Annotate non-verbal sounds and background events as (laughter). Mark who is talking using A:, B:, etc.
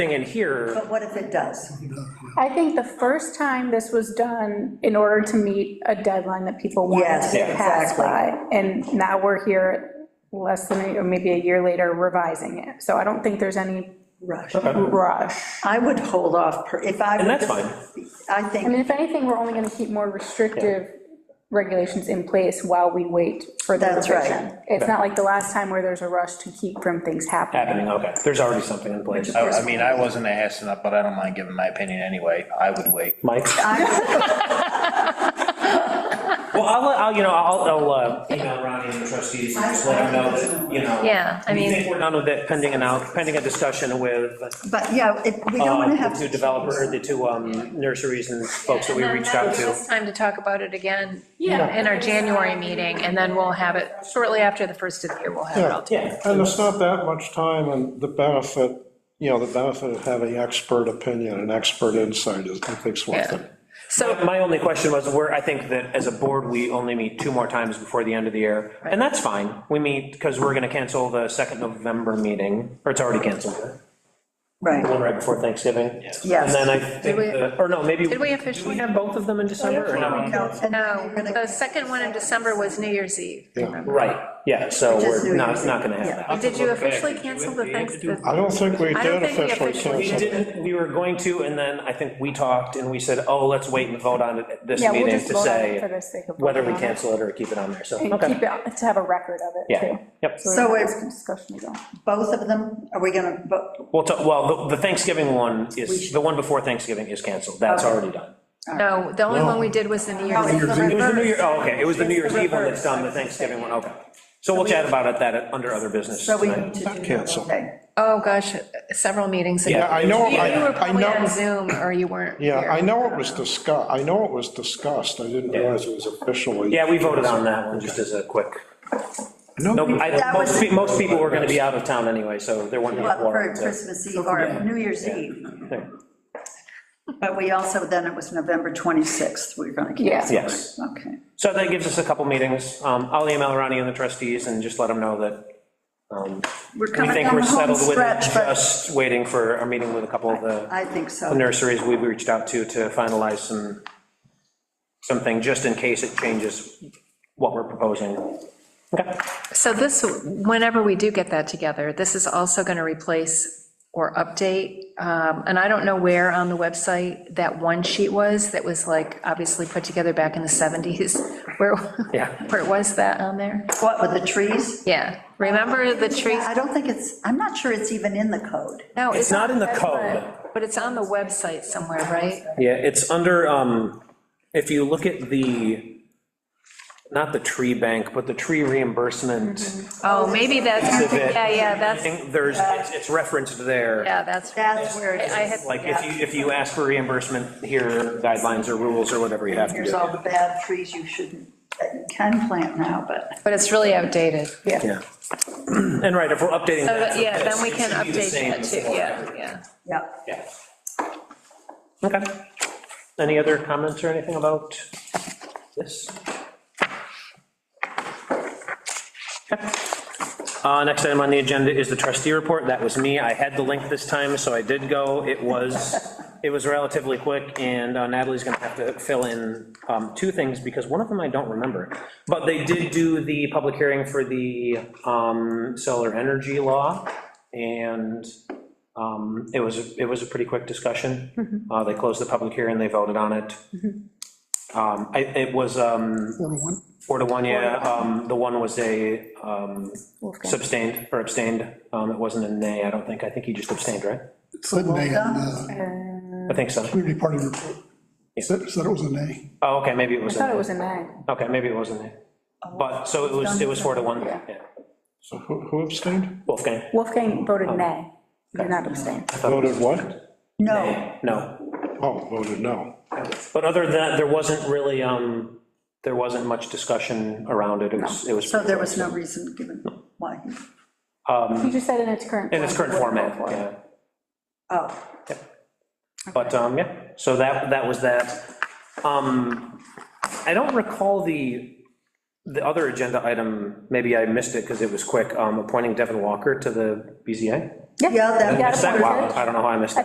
A: thing in here,
B: But what if it does?
C: I think the first time this was done in order to meet a deadline that people wanted
B: Yes,
C: to pass
B: exactly.
C: by. And now we're here less than, a- or maybe a year later revising it. So I don't think there's any
B: Rush.
C: rush.
B: I would hold off, per- if I.
A: And that's
B: were- I
C: I mean,
B: think
C: if anything, we're only going to keep more restrictive regulations in place while we wait for the
B: That's right.
C: revision. It's not like the last time where there's a rush to keep from things happening.
A: happening, okay, there's already something in place.
D: I I mean, I wasn't asking that, but I don't mind giving my opinion anyway. I would wait.
A: Mike? Well, I'll, let- I'll, you know, I'll, I'll uh, email Ronnie and the trustees, and just let them know that, you know.
E: Yeah, I
A: We
E: mean-
A: think we're done with it, pending an out, pending a discussion with
B: But, yeah, if, we don't
A: uh,
B: want to
A: the
B: have.
A: two developer, the two um, nurseries and folks that we reached out to.
E: It's time to talk about it again in
F: Yeah.
E: our January meeting, and then we'll have it, shortly after the first of the year, we'll have it all.
A: Yeah,
F: And it's not that much time, and the benefit, you know, the benefit of having expert opinion and expert insight is, I think, is worth it.
A: so my only question was, where, I think that as a board, we only meet two more times before the end of the year, and that's fine, we meet, because we're gonna cancel the second November meeting, or it's already canceled, the
B: Right,
A: one right before Thanksgiving.
B: Yes.
A: And then I think,
E: we-
A: the- or no, maybe.
E: Did we
A: Do we
E: officially?
A: have both of them in December, or no?
B: no, and then
E: No,
B: you're gonna-
E: the second one in December was New Year's Eve. remember?
A: Right, yeah, so
B: Just
A: we're
B: New
A: not,
B: Year's
A: it's not gonna
B: Eve, yeah.
A: happen.
E: Did you officially cancel the Thanksgiving?
F: I don't think we
E: I don't
F: did
E: think we
F: officially
E: officially
A: We
F: cancel. it.
A: didn't, we were going to, and then I think we talked, and we said, oh, let's wait and vote on it at this
C: Yeah, we'll
A: meeting
C: just
A: to
C: vote on it for
A: say
C: the sake of
A: whether we
C: voting on it.
A: cancel it or keep it on there, so,
C: And
A: okay.
C: keep it, to have a record of it,
A: Yeah,
C: too.
A: yep.
B: So
C: we have
B: it's-
C: some Discussion to go.
B: both of them, are we going to,
A: Well, to- well, the the Thanksgiving one is, the one before Thanksgiving is canceled, that's already done.
E: No, the only
F: No.
E: one we did was the New Year's Eve.
A: It was the New Year, oh, okay, it was the New Year's Eve one that's done, the Thanksgiving one, okay. So we'll chat about it, that, under other business
B: so we
A: tonight.
B: need to do.
F: Cancel.
B: Okay.
E: Oh, gosh, several meetings ago.
A: Yeah,
F: I know,
E: You you were
F: I, I
E: probably on
F: know,
E: Zoom, or you weren't
F: yeah,
E: here.
F: I know it was discussed, I know it was discussed, I didn't realize it was officially.
A: Yeah, we voted on that one, just as a quick.
F: No,
A: No, I,
B: That was-
A: most, pe- most people were gonna be out of town anyway, so there wouldn't be a
B: Well, for
A: quorum. to-
B: Christmas Eve or New Year's Eve.
A: Yeah.
B: But we also, then it was November 26th, we were going to cancel.
A: Yeah. Yes.
B: Okay.
A: So that gives us a couple meetings. Um, I'll email Ronnie and the trustees and just let them know that um,
B: We're
A: we
B: coming
A: think
B: down
A: we're
B: the home
A: settled with it,
B: stretch, but
A: just waiting for a meeting with a couple of the
B: I think
A: the
B: so.
A: nurseries we've reached out to to finalize some, something, just in case it changes what we're proposing. Okay,
E: So this, whenever we do get that together, this is also going to replace or update, um, and I don't know where on the website that one sheet was, that was like, obviously put together back in the 70s, (laughs) where,
A: Yeah.
E: where was that on there?
B: What, with the trees?
E: Yeah, remember the trees?
B: I don't think it's, I'm not sure it's even in the code.
E: No,
A: it's not in the
C: That's
A: code.
E: But it's on the website somewhere, right?
A: Yeah, it's under, um, if you look at the, not the tree bank, but the tree reimbursement,
E: Oh, maybe that's,
A: Exhibit.
E: yeah, yeah,
A: I
E: that's,
A: think there's, it's- it's referenced there.
E: yeah, that's,
B: That's where it
E: I
B: is.
E: had,
A: Like, if you, if you ask for reimbursement, here are guidelines or rules or whatever you have to
B: Here's
A: do.
B: all the bad trees you shouldn't, that you can plant now, but
E: but it's really outdated.
A: Yeah. (clears throat) And right, if we're updating
E: So,
A: that. for
E: yeah,
A: this,
E: then we
A: it
E: can
A: should be the
E: update
A: same
E: that too,
A: as the-
E: yeah, yeah.
B: yeah.
A: Yeah. Okay. Any other comments or anything about this? Okay. Uh, Next item on the agenda is the trustee report. That was me. I had the link this time, so I did go. It (laughs) was, it was relatively quick, and uh, Natalie's going to have to fill in um, two things, because one of them I don't remember. But they did do the public hearing for the um, solar energy law, and um, It was, it was a pretty quick discussion. Uh, They closed the public hearing, they voted on it. Um, I- It was um,
F: Number one.
A: four to one, yeah. Um, The one was a um,
C: Wolfgang.
A: substained, or abstained. Um, It wasn't a nay, I don't think. I think he just abstained, right?
G: said nay on the
A: I think so.
G: community party report. Said, said it was a nay.
A: Oh, okay, maybe it was
C: I
A: a
C: thought it
A: nay.
C: was a nine.
A: Okay, maybe it was a nay. But, so it was, it was four to one, yeah.
F: So who who abstained?
A: Wolfgang,
C: Wolfgang voted
A: Um,
C: nay, did not abstain.
E: Oh.
F: Voted what?
B: No,
A: no.
F: Oh, voted no.
A: But other than that, there wasn't really, um, there wasn't much discussion around it. It was, it was.
B: so there was no reason given why. he-
C: You just said in its current.
A: In its
C: form,
A: current
C: you wouldn't
A: format,
C: vote for it.
A: yeah.
B: Oh,
A: But, um, yeah, so that, that was that. Um, I don't recall the The other agenda item, maybe I missed it because it was quick, um, appointing Devin Walker to the BZA.
B: Yeah, that
C: Yeah.
A: Wow, I don't know how I missed that.